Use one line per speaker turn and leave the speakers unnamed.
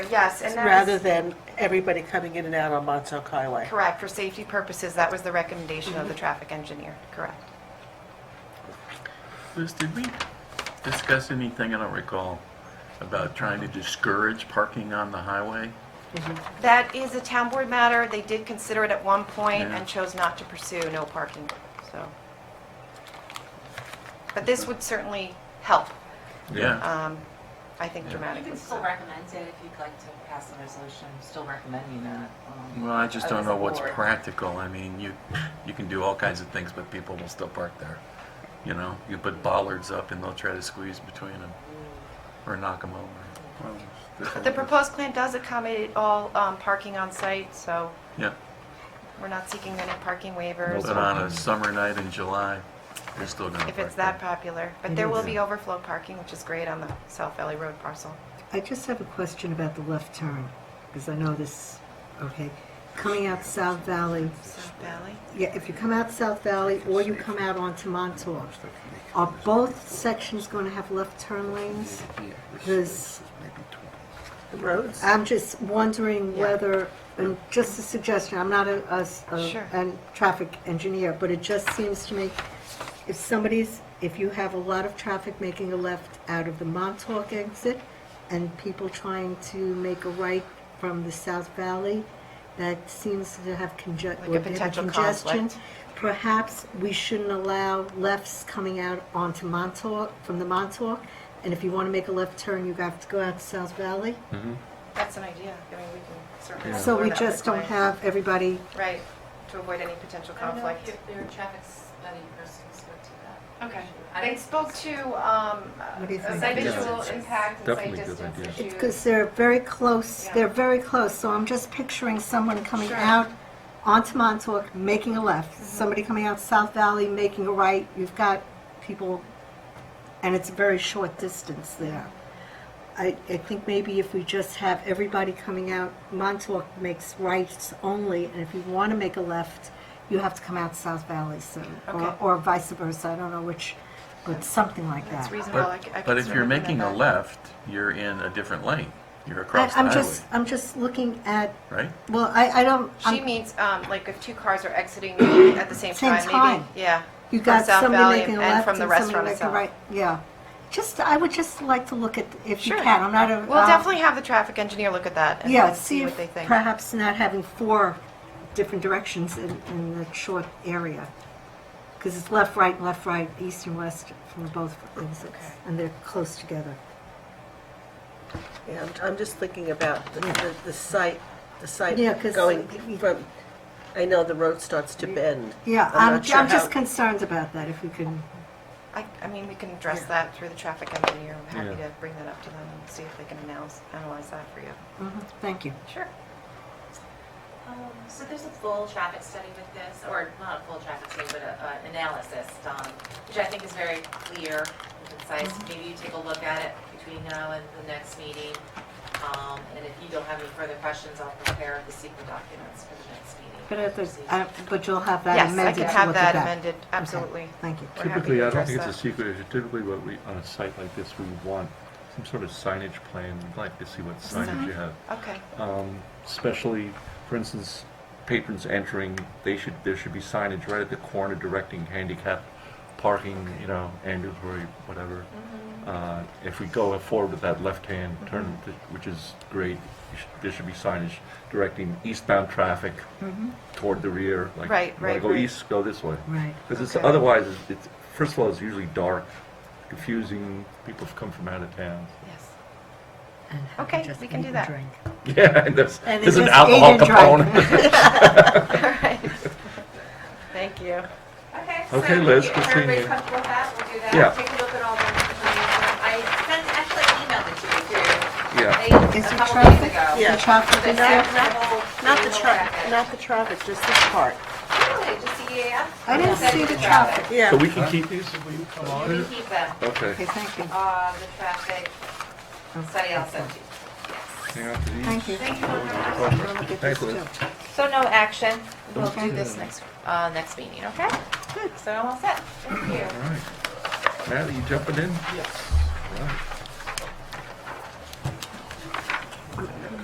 Yes, and that
rather
was,
than everybody coming in and out on Montauk Highway.
correct, for safety purposes, that was the recommendation
Mm-hmm.
of the traffic engineer, correct.
Liz, did we discuss anything, I don't recall, about trying to discourage parking on the highway?
That is a town board matter. They did consider it at one point
Yeah.
and chose not to pursue no parking, so. But this would certainly help,
Yeah.
um, I think
Yeah.
You
dramatically.
can still recommend it if you'd like to pass the resolution, still recommending that. um,
Well, I just don't
as
know
a
what's
board.
practical. I mean, you, you can do all kinds of things, but people will still park there. You know, you put bollards up and they'll try to squeeze between them or knock them over.
But the proposed plan does accommodate all um, parking on site, so
Yeah,
we're not seeking any parking waivers.
but on a summer night in July, they're still gonna
If it's
park
that
there.
popular. But
Mm-hmm.
there will be overflow parking, which is great on the South Valley Road parcel.
I just have a question about the left turn, because I know this, okay. Coming out South Valley,
South Valley?
yeah, if you come out South Valley or you come out onto Montauk, are both sections going to have left turn lanes? Because
The roads?
I'm just wondering
Yeah.
whether, and just a suggestion, I'm not a, a, a-
Sure.
a traffic engineer, but it just seems to me, if somebody's, if you have a lot of traffic making a left out of the Montauk exit, and people trying to make a right from the South Valley, that seems to have conge-
Like a
or have
potential
congestion.
conflict.
Perhaps we shouldn't allow lefts coming out onto Montauk, from the Montauk, and if you want to make a left turn, you have to go out to South Valley.
That's an idea. I mean, we can certainly.
So
explore
we
that
just
with
don't
clients.
have everybody,
Right, to avoid any potential
I don't know
conflict.
if their traffic study person spoke to that.
Okay.
I
They
don't-
spoke to um,
What do you
a
think?
site
Yeah.
visual impact and site
Definitely good
distance
idea. It's
issues.
because they're very close,
Yeah.
they're very close, so I'm just picturing someone coming
Sure.
out onto Montauk, making a left, somebody coming out South Valley, making a right, you've got people, and it's a very short distance there. I, I think maybe if we just have everybody coming out, Montauk makes rights only, and if you want to make a left, you have to come out South Valley soon, or,
Okay.
or vice versa, I don't know which, but something like that.
That's reasonable. I c- I
But,
can
but if you're
certainly
making a
recommend that.
left, you're in a different lane. You're
I-
across the
I'm
highway,
just, I'm just looking at,
right?
well, I, I don't,
She
I'm-
means, um, like, if two cars are exiting at the same
Same
time, maybe,
time.
yeah.
you
from
got
South
somebody
Valley
making a
and
left
from
and
the
somebody
restaurant
making a
itself.
right, yeah. Just, I would just like to look at, if you
Sure.
can, I'm not a.
We'll
um,
definitely have the traffic engineer look at that
Yeah,
and
see
see
if
what they think.
perhaps not having four different directions in, in that short area. Because it's left, right, left, right, east and west from both exits, and they're close together.
Yeah, I'm- I'm just thinking about the- the the site, the site
Yeah, 'cause-
going from, I know the road starts to bend.
Yeah,
I'm
I'm,
not sure
I'm
how-
just concerned about that, if we can,
I, I mean, we can address that through the traffic engineer. I'm happy to bring that up to them and see if they can announce, analyze that for you.
Mhm, thank you.
Sure.
Um, So there's a full traffic study with this, or not a full traffic study, but a- an analysis done, which I think is very clear and concise. Maybe you take a look at it between now and the next meeting. Um, And if you don't have any further questions, I'll prepare the secret documents for the next meeting.
But if there's,
So you-
I- but you'll have that
Yes, I
amended
can
to
have
look at
that
that.
amended, absolutely.
Thank you.
We're happy
Typically,
to
I don't
address
think it's a
that.
secret issue. Typically, what we, on a site like this, we want some sort of signage plan. We'd like to see what signage you have.
Okay,
Um, Especially, for instance, patrons entering, they should, there should be signage right at the corner directing handicap parking, you know, ambulatory, whatever.
Mm-hmm.
Mm-hmm.
Uh, If we go forward with that left-hand turn,
Mm-hmm.
which is great, you should- there should be signage directing eastbound traffic toward the rear. like,
Right,
wanna
right,
Go
right.
east, go this way.
Right.
Because it's
Okay.
otherwise, it's- it's first of all, it's usually dark, confusing. People have come from out of town.
yes.
And have
Okay,
just
we can
eat
do
and
that.
drink.
Yeah, and there's,
And they
there's an
just ate
alcohol
and drank.
component.
All right. Thank you.
Okay.
Okay,
so
Liz,
if
good seeing
Everybody's
you.
comfortable with that? We'll do that.
Yeah.
Take a look at all the information. I sent, actually emailed it to you too.
Yeah.
They-
Is
a
there
couple days
traffic?
ago.
Yeah.
The traffic
The
is there?
actual
Not the
manual
traffic,
packet.
not the traffic, just this part.
Really, just the E EAF?
I didn't
Send
see
you
the traffic.
Yeah.
So we can keep these?
You can keep them.
Okay,
Okay.
thank you.
Uh, the traffic study I'll send you. Yes.
Hang on to these.
Thank you.
Thank you for
Let me get
Thanks,
this
Liz.
too.
So no action. We'll
Okay.
do this next, uh, next meeting, okay? Good. So I'm all set. Thank you.
All right. Natalie, you jumping in? Yes.